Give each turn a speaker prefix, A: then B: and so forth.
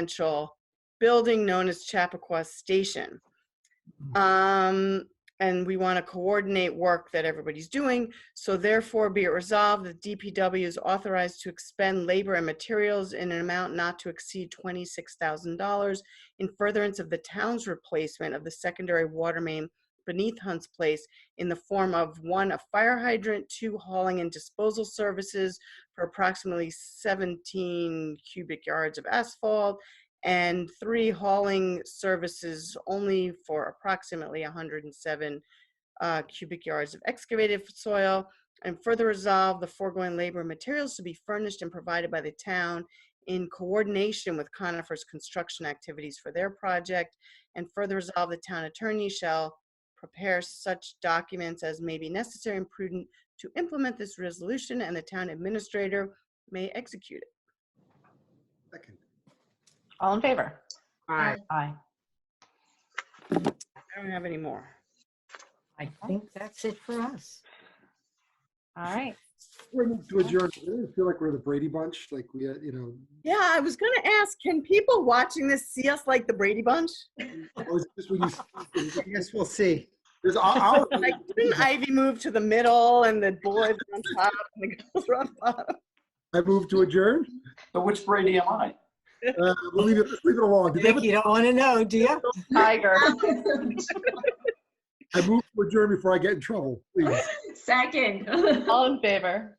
A: residential building known as Chappaqua Station. Um, and we want to coordinate work that everybody's doing. So therefore be it resolved that DPW is authorized to expend labor and materials in an amount not to exceed twenty-six thousand dollars in furtherance of the town's replacement of the secondary water main beneath Hunt's Place in the form of one, a fire hydrant, two, hauling and disposal services for approximately 17 cubic yards of asphalt, and three, hauling services only for approximately 107 uh, cubic yards of excavated soil. And further resolve the foregoing labor and materials to be furnished and provided by the town in coordination with Conifer's construction activities for their project. And further resolve the town attorney shall prepare such documents as may be necessary and prudent to implement this resolution, and the town administrator may execute it.
B: Second.
C: All in favor?
B: Aye.
C: Aye.
A: I don't have any more.
D: I think that's it for us.
C: All right.
B: When- To adjourn, I really feel like we're the Brady Bunch, like we, uh, you know,
A: Yeah, I was gonna ask, can people watching this see us like the Brady Bunch?
B: or is this when you?
D: I guess we'll see.
B: There's our,
A: Like, didn't Ivy move to the middle and the boys were on top and the girls were on bottom?
B: I move to adjourn.
E: So which Brady am I?
B: Uh, We'll leave it, leave it alone. Did they
D: Vic,
B: have a-
D: you don't want to know, do you?
C: Tiger.
B: I move to adjourn before I get in trouble, please.
F: Second.
C: All in favor?